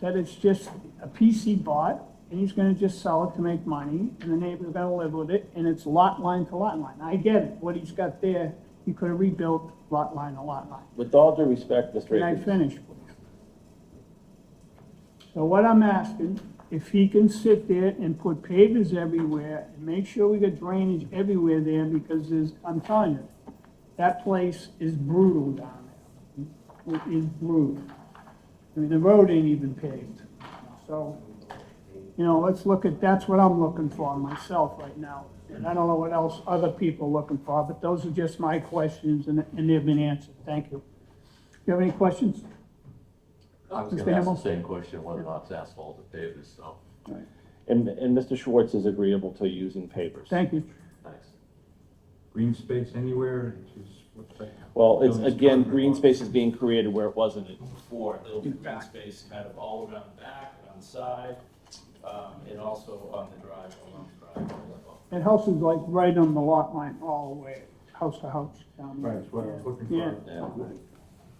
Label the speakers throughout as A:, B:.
A: that it's just a piece he bought, and he's gonna just sell it to make money, and the neighbor's gotta live with it, and it's lot line to lot line. I get it, what he's got there, he could have rebuilt lot line to lot line.
B: With all due respect, Mr.
A: Can I
B: Akins,
A: finish, please? So what I'm asking, if he can sit there and put pavers everywhere and make sure we got drainage everywhere there, because there's, I'm telling you, that place is brutal down there. It is brutal. I mean, the road ain't even paved. So, you know, let's look at, that's what I'm looking for myself right now. And I don't know what else other people are looking for, but those are just my questions and, and they've been answered. Thank you. Do you have any questions?
C: I was
A: Mr.
C: gonna ask
A: Hamel?
C: the same question, whether or not it's asphalt or pavers, so,
B: and, and Mr. Schwartz is agreeable to using pavers.
A: Thank you.
C: thanks.
D: green space anywhere, which is what the.
B: Well, it's,
D: Building's
B: again,
D: covered.
B: green space is being created where it wasn't
E: before, there'll be green space kind of all around the back, on the side, um, and also on the drive, along the drive.
A: That house is like right on the lot line all the way, house to house down there.
D: Right, that's what I was looking
A: Yeah.
D: for.
B: Yeah.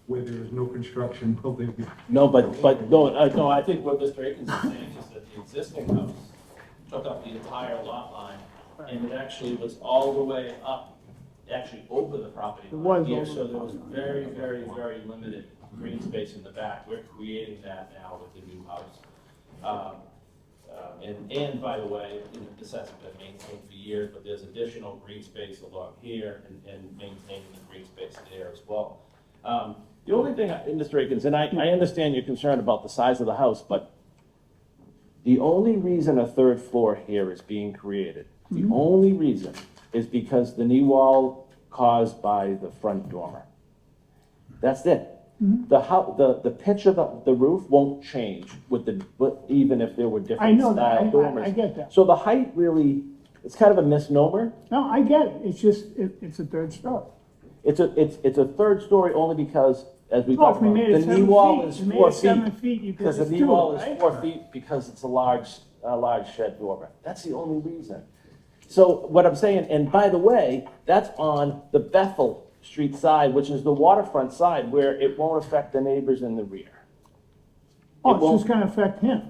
D: Where there is no construction, will there be?
B: No, but, but, no, uh, no, I
E: I
B: think,
E: think what Mr. Akins is saying is that the existing house took up the entire lot line, and it actually was all the way up, actually over the property
A: It
E: line
A: was
E: here,
A: over
E: so
A: the
E: there was very, very, very limited green space in the back. We're creating that now with the new house. Um, um, And, and by the way, you know, this hasn't been maintained for years, but there's additional green space along here and, and maintaining the green space there as well. Um,
B: the only thing, I- and Mr. Akins, and I, I understand your concern about the size of the house, but the only reason a third floor here is being created, the
A: Mm-hmm.
B: only reason is because the knee wall caused by the front dormer. That's it.
A: Mm-hmm.
B: The how, the, the pitch of the, the roof won't change with the, but even if there were
A: I
B: different
A: know that, I-
B: style
A: I, I
B: dormers.
A: get that.
B: So the height really, it's kind of a misnomer.
A: No, I get it, it's just, it, it's a third story.
B: It's a, it's, it's a third story only because, as we
A: Well, if
B: talked
A: we
B: about,
A: made
B: the
A: it
B: knee
A: seven
B: wall
A: feet,
B: is
A: you made
B: four
A: it seven
B: feet.
A: feet, you could
B: Because the
A: just
B: knee
A: do
B: wall
A: it,
B: is
A: right?
B: four feet because it's a large, a large shed dormer. That's the only reason. So what I'm saying, and by the way, that's on the Bethel Street side, which is the waterfront side where it won't affect the neighbors in the rear.
A: Oh,
B: It
A: it's just
B: won't,
A: gonna affect him.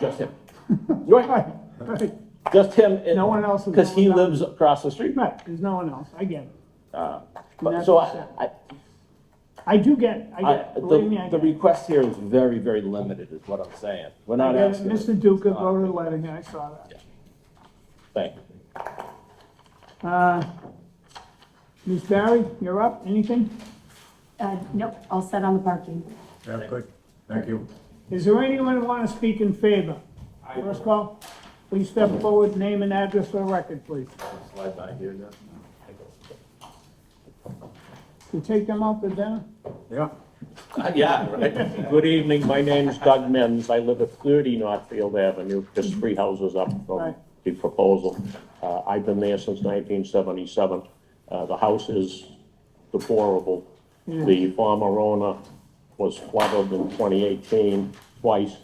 B: just him. You're right,
A: Right, right,
B: just him.
A: No one else is
B: Because he
A: going down.
B: lives across the street.
A: right, there's no one else, I get it.
B: Uh,
A: And
B: But,
A: that's
B: so I,
A: upset.
B: I,
A: I do get it, I
B: I,
A: get it, believe me,
B: the,
A: I
B: the
A: get it.
B: request here is very, very limited, is what I'm saying. We're
A: I
B: not
A: get it.
B: asking.
A: Mr. Duca wrote a letter here, I saw that.
B: Thank you.
A: Uh, Ms. Barry, you're up, anything?
F: Uh, nope, all set on the parking.
D: Yeah, good, thank you.
A: Is there anyone who want to speak in favor? First call, please step forward, name and address for the record, please.
C: Slide by here now.
A: You take them out to dinner?
D: Yeah,
B: Uh,
C: Yeah, right.
G: Good evening, my name is Doug Mims, I live at 30 Northfield Avenue, just three houses up
A: Mm-hmm. Right.
G: from the proposal. Uh, I've been there since 1977. Uh, The house is deplorable.
A: Mm.
G: The former owner was flooded in 2018 twice,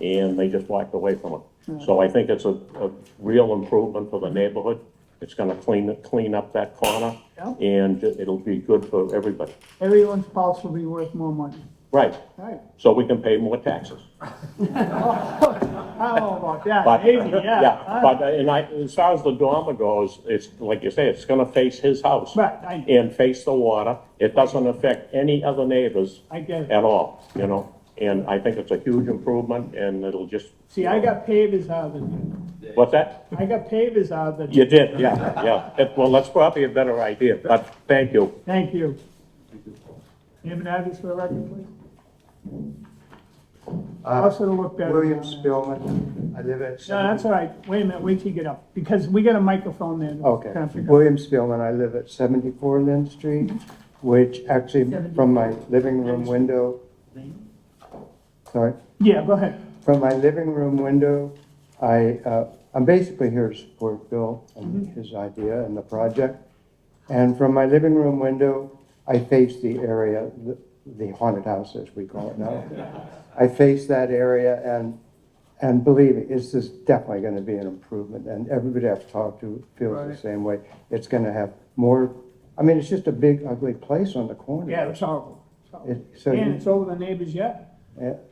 G: and they just walked away from
A: Mm.
G: it. So I think it's a a real improvement for the neighborhood. It's going to clean, clean up that corner,
A: Yeah.
G: and it'll be good for everybody.
A: Everyone's pulse will be worth more money.
G: Right,
A: Right.
G: so we can pay more taxes.
A: I don't know about that,
G: But,
A: maybe, yeah.
G: yeah, but, uh, and I, as far as the dormer goes, it's, like you say, it's gonna face his house.
A: Right, I-
G: And face the water, it doesn't affect any other neighbors.
A: I get it.
G: At all, you know, and I think it's a huge improvement, and it'll just.
A: See, I got pavers out of it.
G: What's that?
A: I got pavers out of it.
G: You did, yeah, yeah, It- well, that's probably a better idea, but thank you.
A: Thank you. Name and address for the record, please.
H: Uh,
A: Also to look better.
H: William
A: down there.
H: Spielman, I live at.
A: No, that's all right. Wait a minute, wait till you get up, because we got a microphone there. that's
H: Okay,
A: gonna pick up.
H: William Spielman, I live at 74 Lynn Street, which actually, from my living room window, sorry,
A: Yeah, go ahead.
H: from my living room window, I, uh, I'm basically here to support Bill and
A: Mm-hmm.
H: his idea and the project. And from my living room window, I face the area, the- the haunted house, as we call it now. I face that area and, and believe me, it's just definitely gonna be an improvement. And everybody I've talked to feels the
A: Right.
H: same way. It's gonna have more, I mean, it's just a big ugly place on the corner.
A: Yeah, it's horrible. It's horrible.
H: It- So,
A: And
H: you-
A: it's over the neighbors yet?
H: Uh,